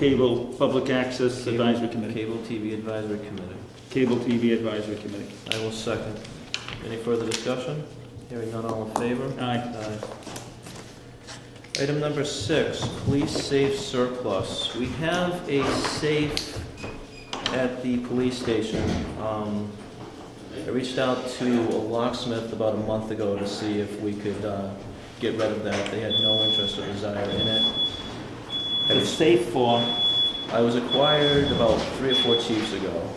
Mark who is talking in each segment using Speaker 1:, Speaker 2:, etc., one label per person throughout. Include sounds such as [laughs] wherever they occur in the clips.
Speaker 1: Cable Public Access Advisory Committee,
Speaker 2: Cable TV Advisory Committee.
Speaker 1: Cable TV Advisory Committee.
Speaker 2: I will second. Any further discussion? Hearing none, all in favor?
Speaker 1: Aye.
Speaker 2: Aye. Item number six, police safe surplus. We have a safe at the police station. Um, I reached out to a locksmith about a month ago to see if we could uh, get rid of that. They had no interest or desire in it. I
Speaker 1: It's safe for,
Speaker 2: I was acquired about three or four chiefs ago.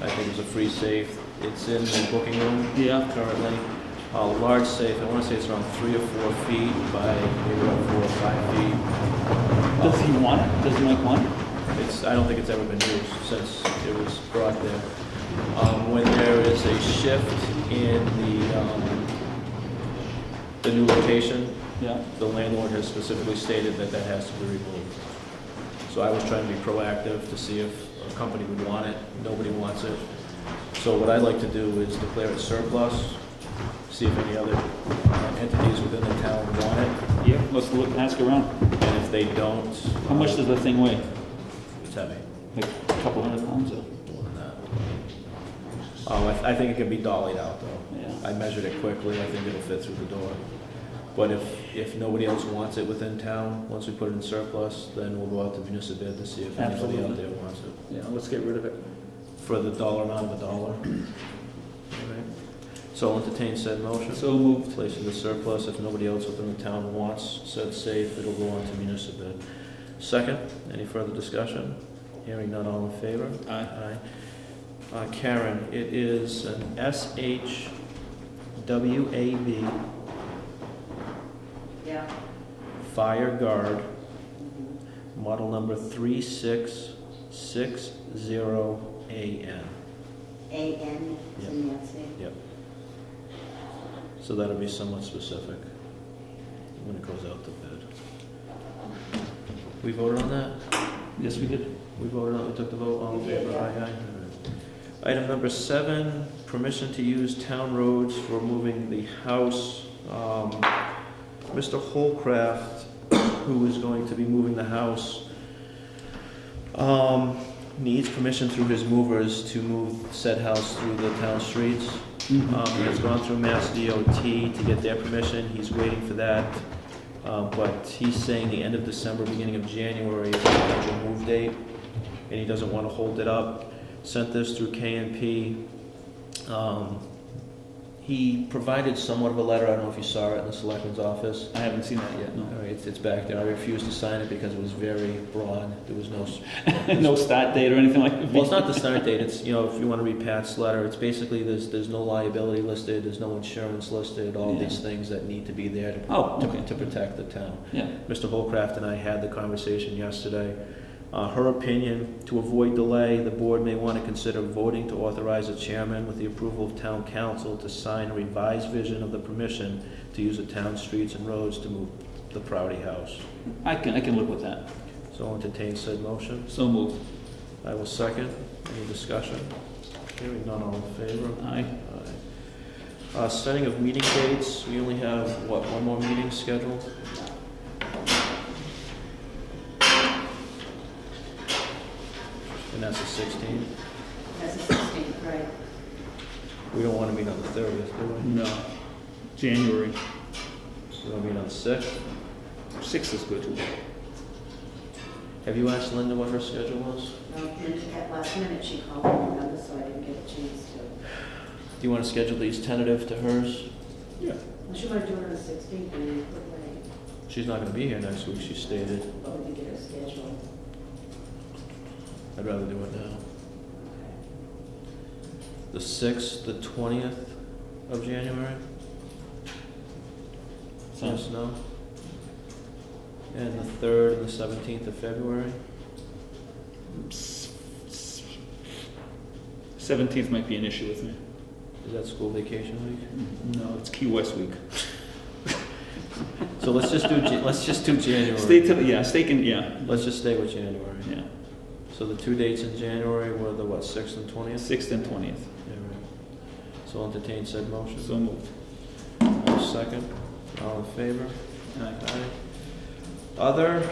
Speaker 2: I think it's a free safe. It's in the booking room
Speaker 1: yeah,
Speaker 2: currently. A large safe, I want to say it's around three or four feet by maybe around four or five feet. Um,
Speaker 1: does he want it? Does Mike want it?
Speaker 2: It's, I don't think it's ever been used since it was brought there. Um, when there is a shift in the, um, the new location,
Speaker 1: Yeah,
Speaker 2: the landlord has specifically stated that that has to be removed. So I was trying to be proactive to see if a company would want it. Nobody wants it. So what I'd like to do is declare it surplus, see if any other uh, entities within the town want it.
Speaker 1: yeah, let's look, ask around.
Speaker 2: And if they don't.
Speaker 1: How much does the thing weigh?
Speaker 2: It's heavy.
Speaker 1: Like a couple hundred pounds or?
Speaker 2: More than that. Um, I, th- I think it can be dollied out though.
Speaker 1: Yeah.
Speaker 2: I measured it quickly, I think it'll fit through the door. But if, if nobody else wants it within town, once we put it in surplus, then we'll go out to municipal bid to see if anybody out
Speaker 1: Absolutely.
Speaker 2: there wants it.
Speaker 1: Yeah, let's get rid of it.
Speaker 2: For the dollar amount of a dollar. Alright. So I'll entertain said motion.
Speaker 1: So moved.
Speaker 2: Place in the surplus, if nobody else within the town wants said safe, it'll go on to municipal bid. Second, any further discussion? Hearing none, all in favor?
Speaker 1: Aye.
Speaker 2: Aye. Uh, Karen, it is an SHWAB
Speaker 3: Yeah,
Speaker 2: fire guard, model number 3660AN.
Speaker 3: A N,
Speaker 2: Yeah.
Speaker 3: Nancy.
Speaker 2: So that'll be somewhat specific when it goes out to bid. We voted on that?
Speaker 1: Yes, we did.
Speaker 2: We voted on, we took the vote, all in favor, aye, aye. Item number seven, permission to use town roads for moving the house. Um, Mr. Holcraft, who is going to be moving the house, um, needs permission through his movers to move said house through the town streets.
Speaker 1: Mm-hmm.
Speaker 2: Um,
Speaker 1: Uh,
Speaker 2: he has gone through Mass DOT to get their permission, he's waiting for that. Um, but he's saying the end of December, beginning of January is the potential move date, and he doesn't wanna hold it up. Sent this through KNP. Um, he provided somewhat of a letter, I don't know if you saw it in the selectman's office.
Speaker 1: I haven't seen that yet,
Speaker 2: All
Speaker 1: no.
Speaker 2: right, it's, it's back there. I refused to sign it because it was very broad. There was no, s-
Speaker 1: [laughs] No start date or anything like?
Speaker 2: well, it's not the start date. It's, you know, if you want to read Pat's letter, it's basically there's, there's no liability listed, there's no insurance listed, all
Speaker 1: Yeah.
Speaker 2: these things that need to be there to,
Speaker 1: Oh,
Speaker 2: to-
Speaker 1: okay.
Speaker 2: to protect the town.
Speaker 1: Yeah,
Speaker 2: Mr. Holcraft and I had the conversation yesterday. Uh, her opinion, to avoid delay, the board may want to consider voting to authorize the chairman with the approval of town council to sign a revised vision of the permission to use the town streets and roads to move the Proudy House.
Speaker 1: I can, I can live with that.
Speaker 2: So I'll entertain said motion.
Speaker 1: So moved.
Speaker 2: I will second. Any discussion? Hearing none, all in favor?
Speaker 1: Aye.
Speaker 2: Aye. Uh, Setting of meeting dates, we only have, what, one more meeting scheduled? And that's the 16th.
Speaker 3: That's a sixteen, right.
Speaker 2: We don't want to meet on the 30th, do
Speaker 1: No. January
Speaker 2: we? We want to meet on the 6th.
Speaker 1: sixth is good.
Speaker 2: Have you asked Linda what her schedule was?
Speaker 3: No, and At last minute, she called me, remember, so I didn't get a chance to.
Speaker 2: Do you want to schedule these tentative to hers?
Speaker 1: Yeah.
Speaker 3: She wanted to do it on the sixteenth, and we put like,
Speaker 2: She's not going to be here next week, she stated.
Speaker 3: but we could get her scheduled.
Speaker 2: I'd rather do it now. The sixth, the twentieth of January?
Speaker 1: Sounds,
Speaker 2: Yes, no? And the third and the seventeenth of February?
Speaker 1: seventeenth might be an issue with me.
Speaker 2: Is that school vacation week?
Speaker 1: No, it's Key West week.
Speaker 2: So let's just do, Ja- let's just do January.
Speaker 1: Stay till, yeah, stay can, yeah,
Speaker 2: Let's just stay with January.
Speaker 1: yeah,
Speaker 2: So the two dates in January were the what, sixth and twentieth?
Speaker 1: sixth and twentieth,
Speaker 2: So I'll entertain said motion.
Speaker 1: so moved.
Speaker 2: I'll Second, all in favor?
Speaker 1: Aye.
Speaker 2: Aye. Other,